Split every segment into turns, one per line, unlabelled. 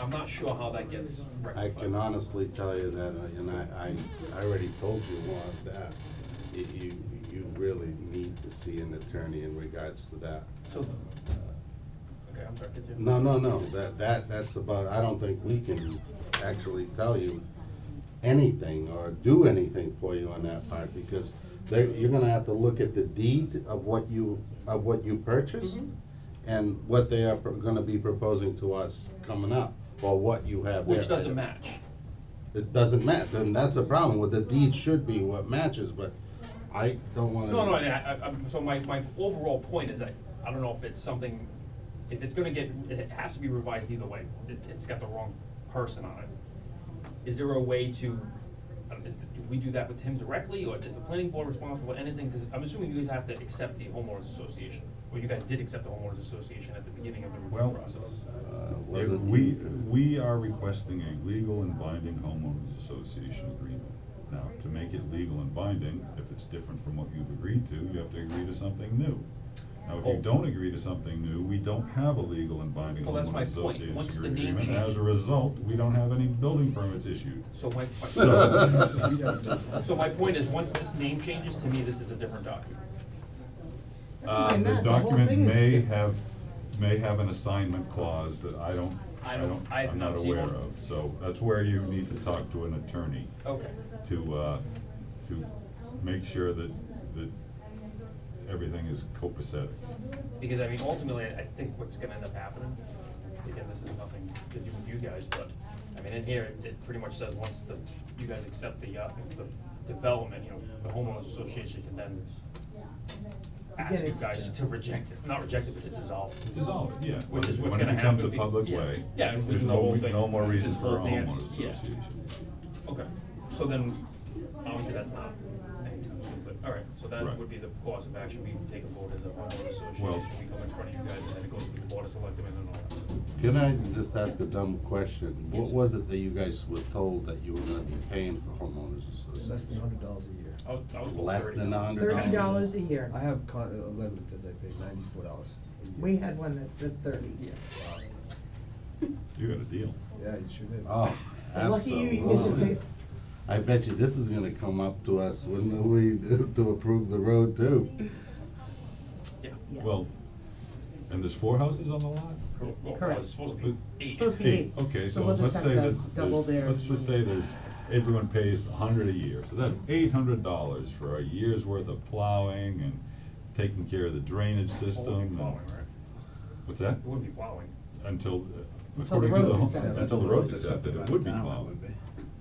I'm not sure how that gets
I
rectified.
can honestly tell you that, uh, and I, I, I already told you, Lon, that you, you, you really need to see an attorney in regards to that.
So, uh, okay, I'm sorry, continue.
No, no, no, that, that, that's about, I don't think we can actually tell you anything or do anything for you on that part, because they you're gonna have to look at the deed of what you, of what you purchased and what they are pro- gonna be proposing to us coming up, or what you have there.
Which doesn't match.
It doesn't match, and that's the problem, what the deed should be what matches, but I don't wanna.
No, no, I, I, I'm, so my, my overall point is that, I don't know if it's something, if it's gonna get, it has to be revised either way, it, it's got the wrong person on it. Is there a way to, uh, is, the- do we do that with him directly, or is the planning board responsible, for anything, cause I'm assuming you guys have to accept the homeowners association, or you guys did accept the homeowners association at the beginning of the
Well,
review process.
Uh,
If
wasn't.
We, we are requesting a legal and binding homeowners association agreement. Now, to make it legal and binding, if it's different from what you've agreed to, you have to agree to something new. Now, if
Oh.
you don't agree to something new, we don't have a legal and binding
Well, that's my
homeowners
point.
association
Once the name
agreement, and as
changes-
a result, we don't have any building permits issued.
So my, my.
So-
So my point is, once this name changes, to me, this is a different document.
Uh,
Other than
the
that, the whole
document
thing is
may
di-
have, may have an assignment clause that I don't,
I
I
don't-
don't,
I have
I'm
not
not
seen
aware
one.
of, so that's where you need to talk to an attorney
Okay.
to, uh, to make sure that, that everything is copacetic.
Because I mean, ultimately, I think what's gonna end up happening, again, this is nothing to do with you guys, but, I mean, in here, it- it pretty much says, once the, you guys accept the, uh, the development, you know, the homeowners association can then ask
Again,
you
it's-
guys to reject it, not reject it, but to dissolve. it.
Dissolve, it, yeah.
Which is what's
When
gonna
it becomes a
happen be-
public
yeah.
way.
Yeah, and we
There's
do the
no,
whole
re-
thing,
no more
this
reason for a
whole dance,
homeowners
yeah.
association.
Okay, so then, obviously, that's not anytime soon, but, all right, so that
Right.
would be the course of action, we take a vote as a homeowners
Well-
association, we come in front of you guys, and then it goes to the board of selectmen and all that.
Can I just ask a dumb question? What
Yes.
was it that you guys were told that you were gonna be paying for homeowners
Less
association?
than hundred dollars a year.
I was, I was told
Less
thirty.
than a hundred
Thirty dollars a year.
I have con, a letter that says I paid ninety-four dollars.
We had one that said thirty.
Yeah.
You got a deal.
Yeah, you sure did.
Ah.
Oh,
So lucky you, you get to
absolutely.
pay,
I bet you this is gonna come up to us when we, to approve the road too.
Yeah.
yeah.
Well, and there's four houses on the lot?
Cor- Well, well,
Correct.
it's supposed to be
It's
eight.
supposed to be eight.
Okay,
So
so
we'll just
let's
have
say
to
that,
double
there's-
their
let's just say
money.
there's, everyone pays a hundred a year, so that's eight hundred dollars for a year's worth of plowing and taking care of the drainage
Well,
system.
It wouldn't be
and-
um,
um, plowing, right?
What's that?
It wouldn't be plowing.
Until, uh,
Until the
according to the,
road's
home-
accepted.
until the road's accepted, it would be plowed.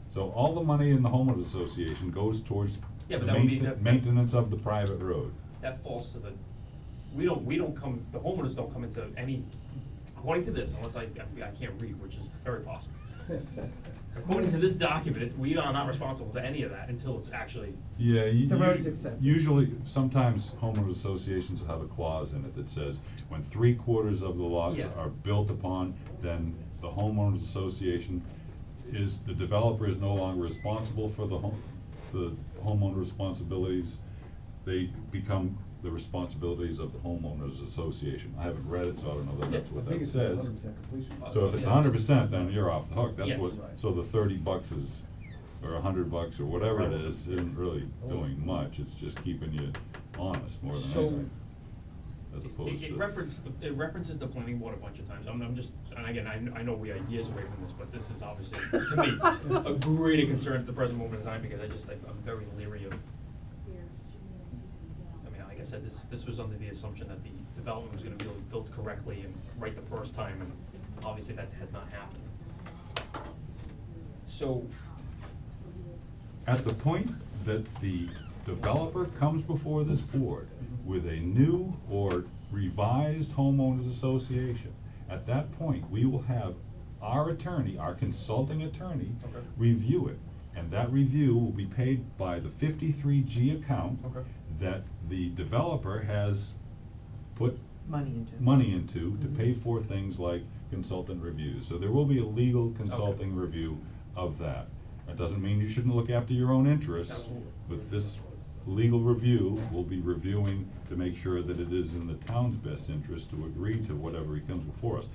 So all the money in the homeowners association goes towards
Yeah,
the
but that would be
mainten-
the-
maintenance of the private road.
That falls to the, we don't, we don't come, the homeowners don't come into any, according to this, unless I, I can't read, which is very possible. According to this document, we are not responsible for any of that until it's actually,
Yeah, you.
The
you-
road's accepted.
Usually, sometimes homeowners associations will have a clause in it that says, when three quarters of the lots
Yeah.
are built upon, then the homeowners association is, the developer is no longer responsible for the home, the homeowner responsibilities. They become the responsibilities of the homeowners association. I haven't read it, so I don't know that that's what
I
that
think it's
says. Ah,
hundred percent completion.
So if it's a hundred percent, then you're off the hook, that's
Yes.
what, so the thirty bucks is, or a hundred bucks or whatever it is, isn't really doing much, it's just keeping you honest more than
So-
anything. As opposed
it,
to.
it references, the- it references the planning board a bunch of times, I'm, I'm just, and again, I, kn- I know we are years away from this, but this is obviously, to me, a greater concern at the present moment in time, because I just, like, I'm very leery of I mean, like I said, this, this was under the assumption that the development was gonna be built correctly and right the first time, and obviously that has not happened. So,
At the point that the developer comes before this board with a new or revised homeowners association, at that point, we will have our attorney, our consulting attorney,
Okay.
review it. And that review will be paid by the fifty-three G account
Okay.
that the developer has put
money into it.
money into to pay for things like consultant reviews. So there will be a legal consulting review of that. That doesn't mean you shouldn't look after your own interests,
Absolutely.
but this legal review will be reviewing to make sure that it is in the town's best interest to agree to whatever he comes before us.